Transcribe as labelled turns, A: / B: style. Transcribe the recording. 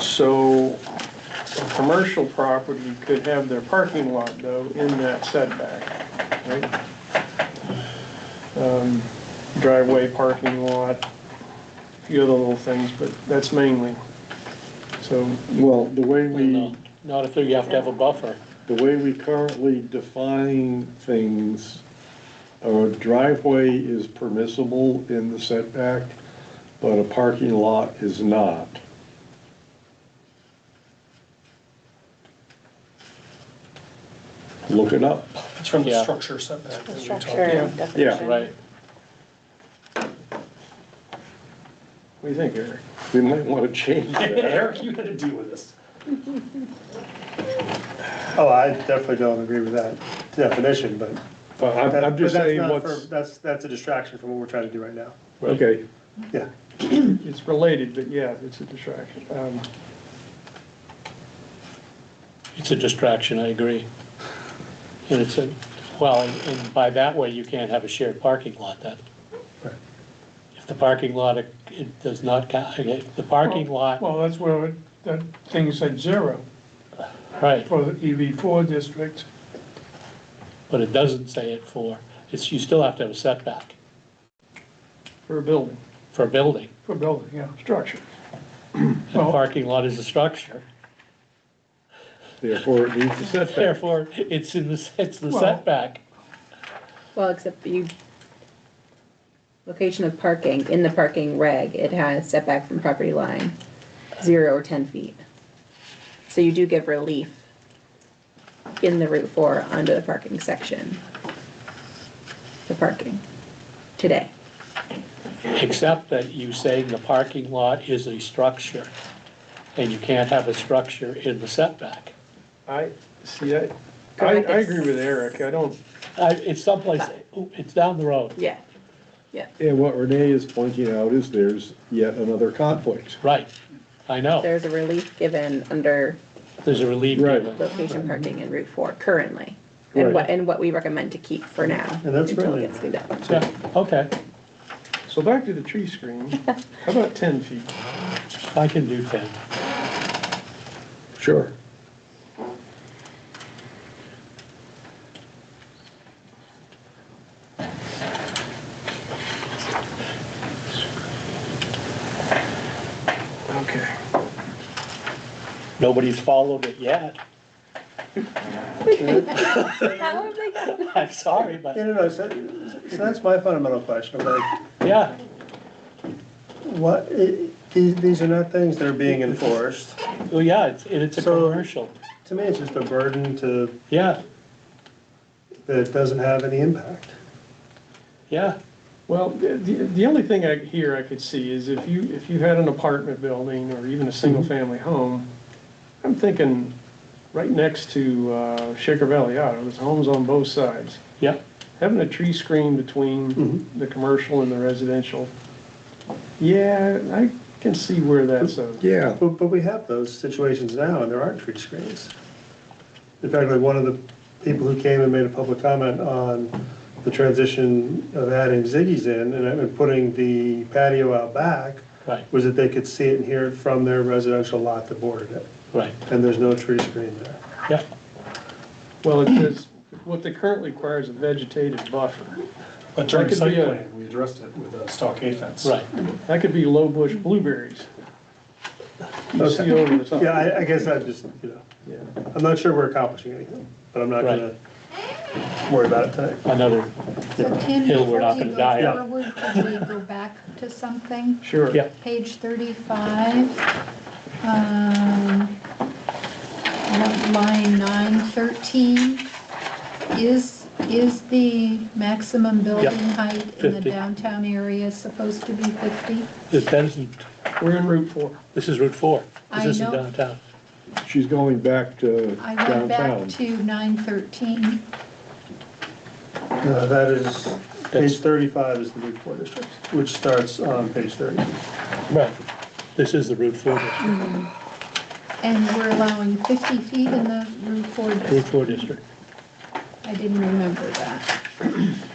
A: So a commercial property could have their parking lot though in that setback, right? Um, Driveway, parking lot, a few other little things, but that's mainly. So,
B: Well, the way we,
C: No, Not if you have to have a buffer.
B: the way we currently define things, a driveway is permissible in the setback, but a parking lot is not. Look it up.
D: It's from the
C: Yeah.
D: structure setback. that we talked
E: Structure
A: Yeah.
E: definition.
C: Right.
A: what do you think, Eric?
B: We might want to change
D: about.
B: that.
D: Eric, you had to deal with this.
F: Oh, I definitely don't agree with that definition, but.
B: But I'm, I'm
F: but that's
B: just saying
F: not
B: what's,
F: for- That's, that's a distraction from what we're trying to do right now.
B: okay,
F: Yeah.
A: It's related, but yeah, it's a distraction. Um,
C: It's a distraction, I agree. And it's a, well, and- and by that way, you can't have a shared parking lot then. If the parking lot, it- it does not, count. if the parking lot,
G: Well, that's where it- that thing said zero
C: right,
G: for the EV4 district.
C: but it doesn't say it for, it's, you still have to have a setback
A: For a building,
C: for a building.
G: For building, yeah, structure.
C: And
G: Well-
C: parking lot is a structure,
B: therefore it needs a setback.
C: therefore, it's in the, it's the
G: Well-
C: setback.
E: Well, except you, location of parking, in the parking reg, it has setback from property line, zero or ten feet. So you do give relief in the Route Four under the parking section. The parking, today.
C: Except that you saying the parking lot is a structure, and you can't have a structure in the setback.
A: I, see, I, I, I agree with Eric. I don't,
C: I, Uh, it's someplace, it's down the road,
E: Yeah, yeah,
B: And what Renee is pointing out is there's yet another conflict.
C: right, I know,
E: there's a relief given under
C: there's a relief
B: Right.
C: given.
E: location parking in Route Four currently. And what, and what we recommend to keep for now.
F: And that's
E: until it
F: really-
E: gets through that.
C: Yeah, okay,
A: so back to the tree screen. How about ten feet?
C: I can do ten.
B: Sure.
A: Okay.
C: Nobody's followed it yet,
E: How have they got
C: I'm sorry, but,
F: No, no, no, so, so that's my fundamental question, of like,
C: yeah,
F: what, i- these, these are not things that are being enforced.
C: well, Oh, yeah, it's, and it's a
F: So-
C: commercial,
F: To me, it's just a burden to,
C: yeah,
F: that it doesn't have any impact.
C: yeah,
A: Well, the, the the only thing I, here I could see is if you, if you had an apartment building or even a single-family home, I'm thinking right next to uh, Shaker Valley Auto, there's homes on both sides.
C: yeah,
A: Having a tree screen between the commercial and the residential, yeah, I can see where that's a,
B: Yeah,
F: But, but we have those situations now, and there aren't tree screens. In fact, like, one of the people who came and made a public comment on the transition of adding Ziggy's in and and putting the patio out back,
C: right,
F: was that they could see it and hear it from their residential lot that bordered it,
C: right,
F: and there's no tree screen there.
C: yeah,
A: well, it says, what they currently require is a vegetative buffer.
D: But during
A: That could
D: site
A: be a-
D: plan, we addressed it with a stockade fence.
C: right,
A: That could be low bush blueberries. You see over the top.
F: Yeah, I, I guess I just, you know,
A: Yeah.
F: I'm not sure we're accomplishing anything, but I'm not gonna worry about it tonight.
C: another,
H: So Tim,
C: Hill, we're
H: before
C: not
H: we
C: gonna
H: go
C: die out.
H: forward, could we go back to something?
A: Sure.
C: yeah,
H: Page thirty-five, um, line nine thirteen. Is, is the maximum building height in the
C: 50.
H: downtown area supposed to be fifty?
C: this, that isn't,
A: We're in Route 4.
C: this is Route Four, this
H: I
C: isn't
H: know.
C: downtown.
B: she's going back to
H: I went back
B: downtown.
H: to nine thirteen.
F: No, Uh, that is, page thirty-five is the Route Four District, which starts on page thirty.
C: Right, this is the Route Four district,
H: And we're allowing 50 feet in the Route 4
C: Route
H: district.
C: Four district.
H: I didn't remember that.